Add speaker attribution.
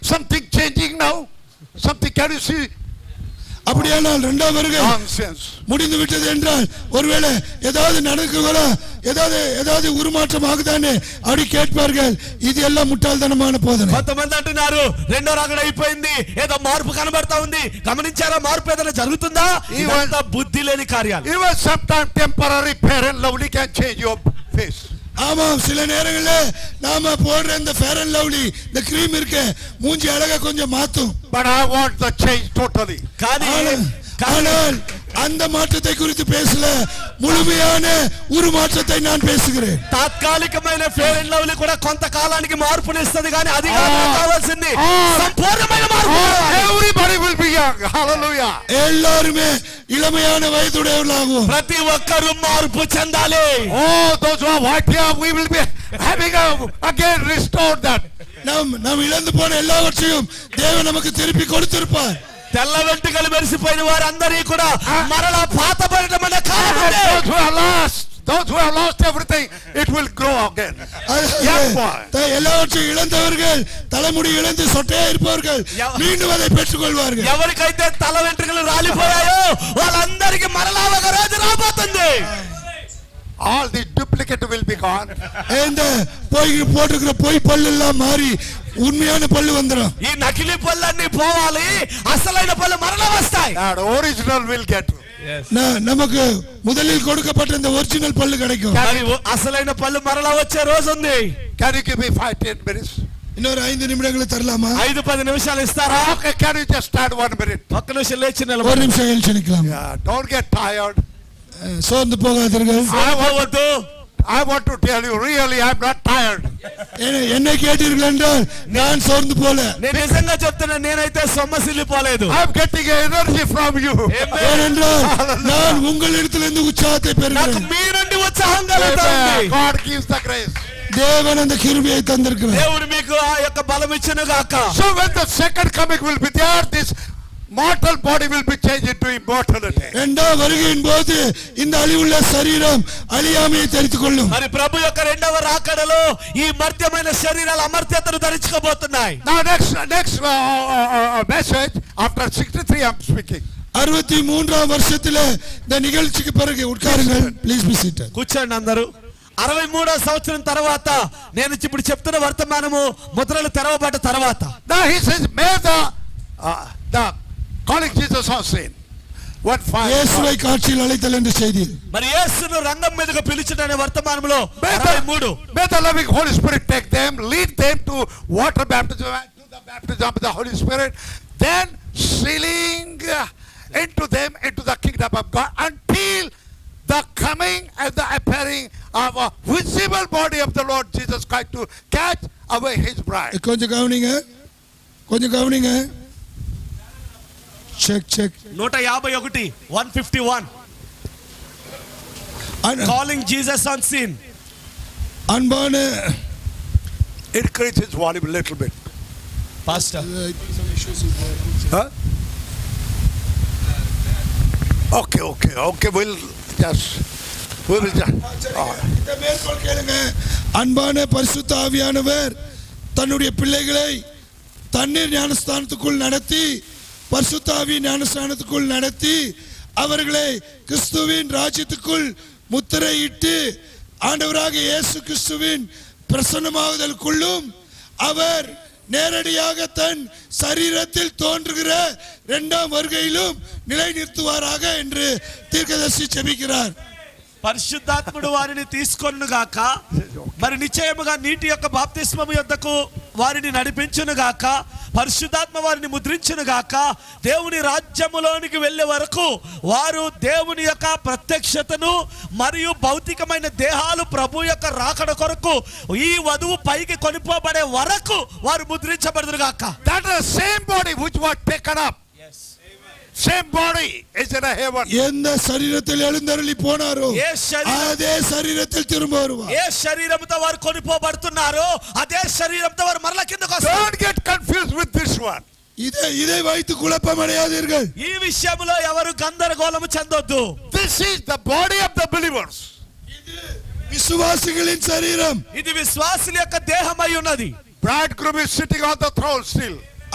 Speaker 1: something changing now? Something, can you see
Speaker 2: அப்படியானால் இரண்டாம் வருகை
Speaker 1: nonsense?
Speaker 2: முடிந்து விட்டது என்றால் ஒருவேளை ஏதாவது நடக்குங்களா ஏதாவது ஏதாவது உருமாற்றம் ஆகுதானே அப்படி கேட்பார்கள் இது எல்லாம் முட்டாள்தனமான போதனை
Speaker 3: కొంతమంది అంటున్నారు రెండో రాకడ అయిపోయింది ఏదో మార్పు కనబడతా ఉంది గమనించారా మార్పు ఏదైనా జరుగుతుందా ఇవంతా బుద్ధి లేని కార్యాలు
Speaker 1: Even sometime temporary fair and lovely can change your face.
Speaker 2: ஆமாம் சில நேரங்களில் நாம போடுற இந்த ஃபேர் அண்ட் லவ்லி இந்த கிரீம் இருக்க மூஞ்சி அழகா கொஞ்சம் மாத்தும்
Speaker 1: But I want the change totally.
Speaker 3: కానీ
Speaker 2: ஆனால்-
Speaker 3: కానీ
Speaker 2: ஆனால் அந்த மாற்றத்தை குறித்து பேசல முழுமையான உருமாற்றத்தை நான் பேசுகிறேன்
Speaker 3: తాత్కాలికమైన ఫేర్ అండ్ లవ్లీ కూడా కొంతకాలానికి మార్పునిస్తుంది కానీ అది కాదు నాకు కావాల్సింది సంపూర్ణమైన మార్పు కావాలి.
Speaker 1: Everybody will be young, hallelujah.
Speaker 2: எல்லாருமே இளமையான வயதுடையவர்களாகவும்
Speaker 3: ప్రతి ఒక్కరూ మార్పు చెందాలి
Speaker 1: Oh, those who are white here, we will be having a, again restored that.
Speaker 2: நாம் நாம் இழந்து போன எல்லாவற்றையும் தேவன் நமக்கு திருப்பி கொடுத்திருப்பார்
Speaker 3: తెల్ల వెంట్రుకలు మెరిసిపోయిన వారందరి కూడా మరలా పాతబడటం అనే కాలం ఉండే.
Speaker 1: And those who are lost, those who have lost everything, it will grow again.
Speaker 2: அதாவது,
Speaker 1: Young boy.
Speaker 2: த- எல்லாவற்றையும் இழந்தவர்கள் தலைமுடி இழந்து சொட்டையா இருப்பவர்கள்
Speaker 3: யா-
Speaker 2: மீண்டும் அதை பெற்றுக் கொள்வார்கள்
Speaker 3: ఎవరికైతే తల వెంట్రుకలు రాలిపోయాయో వాళ్ళందరికీ మరలా ఒక రోజు రాబోతుంది
Speaker 1: All the duplicate will be gone.
Speaker 2: இந்த போய் போட்டுக்கிற பொய் பல்லு எல்லாம் மாறி உண்மையான பல்லு வந்துடும்
Speaker 3: ఈ నకిలీ పళ్ళన్నీ పోవాలి అసలైన పళ్ళు మరలా వస్తాయి
Speaker 1: That original will get.
Speaker 2: ந- நமக்கு முதலில் கொடுக்கப்பட்ட இந்த ஒரிஜினல் பல்லு கிடைக்கும்
Speaker 3: మరి అసలైన పళ్ళు మరలా వచ్చే రోజు ఉంది
Speaker 1: Can you give me five, ten minutes?
Speaker 2: இன்னொரு ஐந்து நிமிடங்களை தரலாமா
Speaker 3: ఐదు పది నిమిషాలు ఇస్తారా
Speaker 1: Okay, can you just stand one minute?
Speaker 3: ఒక్క నిమిషం లేచి
Speaker 2: ஒரு
Speaker 3: నిలబడి
Speaker 2: நிமிஷம் எழுச்சி நிக்கலாம்
Speaker 1: Yeah, don't get tired.
Speaker 2: அஹ், சோர்ந்து போகாதீர்கள்
Speaker 3: అవ్వద్దు
Speaker 1: I want to tell you, really, I'm not tired.
Speaker 2: என்னை- என்னை கேட்டீர்கள் என்றால் நான் சோர்ந்து போல
Speaker 3: నేను నిజంగా చెప్తున్నా నేనైతే సొమ్మసిల్లిపోలేదు
Speaker 1: I'm getting energy from you.
Speaker 2: ஏனென்றால் நான் உங்களிடத்திலிருந்து உற்சாகத்தை
Speaker 3: నాకు
Speaker 2: பெறுகிறேன்
Speaker 3: మీ నుండి ఉత్సాహం కలుగుతా
Speaker 1: Amen.
Speaker 3: ఉంది
Speaker 1: God gives the grace.
Speaker 2: தேவன் அந்த கிருபையை தந்திருக்கிறார்
Speaker 3: దేవుడు మీకు ఆ యొక్క బలం ఇచ్చిన గాక
Speaker 1: So when the second coming will be there, this mortal body will be changed into immortality.
Speaker 2: இரண்டாம் வருகையின் போது இந்த அழிவுள்ள சரீரம் அழியாமையை தெரித்துக் கொள்ளும்
Speaker 3: మరి ప్రభు యొక్క రెండవ రాకడలో ఈ మర్త్యమైన శరీరాలు అమర్త్యతను ధరించుకోబోతున్నాయి
Speaker 1: Now next, next uh, uh, uh, message, after 63 I'm speaking.
Speaker 2: அறுபத்தி மூன்றாம் வருஷத்துல இந்த நிகழ்ச்சிக்கு பிறகு உட்காருங்கள் ப்ளீஸ் பி சீட்டட்
Speaker 3: కూర్చోండి అందరూ అరవై మూడో సంవత్సరం తర్వాత నేను ఇప్పుడు చెప్తున్న వర్తమానము ముద్రలు తెరవబడ్డ తర్వాత
Speaker 1: Now he says, may the, uh, the calling Jesus on scene. One five.
Speaker 2: இயேசுவை காட்சியில் அழைத்தல் என்ற செய்தி
Speaker 3: మరి యేసును రంగం మీదకు పిలుచుటనే వర్తమానంలో
Speaker 1: May
Speaker 3: అరవై మూడు
Speaker 1: the, may the loving Holy Spirit take them, lead them to water baptism, and to the baptism of the Holy Spirit, then sealing uh, into them into the kingdom of God until the coming and the appearing of a visible body of the Lord Jesus Christ to catch away his bride.
Speaker 2: கொஞ்சம் கவனிங்க கொஞ்சம் கவனிங்க check check
Speaker 3: నూట యాభై ఒకటి one fifty one calling Jesus on scene
Speaker 2: அன்பான
Speaker 1: Increase his volume a little bit.
Speaker 3: Pastor
Speaker 1: Huh? Okay, okay, okay, we'll just, we will just, all right.
Speaker 2: இந்த மேற்கோள் கேளுங்க அன்பான பரிசுத்த ஆவியானவர் தன்னுடைய பிள்ளைகளை தண்ணீர் ஞானஸ்தானத்துக்குள் நடத்தி பரிசுத்தாவி ஞானஸ்தானத்துக்குள் நடத்தி அவர்களை கிறிஸ்துவின் ராஜ்யத்துக்குள் முத்திரையிட்டு ஆண்டவராக இயேசு கிறிஸ்துவின் பிரசன்னமாகுதலுக்குள்ளும் அவர் நேரடியாக தன் சரீரத்தில் தோன்றுகிற இரண்டாம் வருகையிலும் நிலைநிறுத்துவாராக என்று தீர்க்கதரிசி செபிக்கிறார்
Speaker 3: పరిశుద్ధాత్ముడు వారిని తీసుకొను గాక మరి నిశ్చయముగా నీటి యొక్క బాప్తిస్మము యొద్దకు వారిని నడిపించును గాక పరిశుద్ధాత్మ వారిని ముద్రించును గాక దేవుని రాజ్యములోనికి వెళ్ళే వరకు వారు దేవుని యొక్క ప్రత్యక్షతను మరియు భౌతికమైన దేహాలు ప్రభు యొక్క రాకడ కొరకు ఈ వధువు పైకి కొనిపోబడే వరకు వారు ముద్రించబడదురు గాక
Speaker 1: That is the same body which was taken up. Same body is in a heaven.
Speaker 2: எந்த சரீரத்தில் எழுந்தருளி போனாரோ
Speaker 3: ఏ శరీరం
Speaker 2: அதே சரீரத்தில் திரும்ப வருவார்
Speaker 3: ఏ శరీరంతో వారు కొనిపోబడుతున్నారో అదే శరీరంతో వారు మరల కిందకు వస్తారు
Speaker 1: Don't get confused with this one.
Speaker 2: இதை இதை வைத்து குழப்பம் அடையாதீர்கள்
Speaker 3: ఈ విషయంలో ఎవరు గందరగోళము చెందొద్దు
Speaker 1: This is the body of the believers.
Speaker 2: விசுவாசிகளின் சரீரம்
Speaker 3: ఇది విశ్వాసుల యొక్క దేహమై ఉన్నది
Speaker 1: Bridegroom is sitting on the throne still.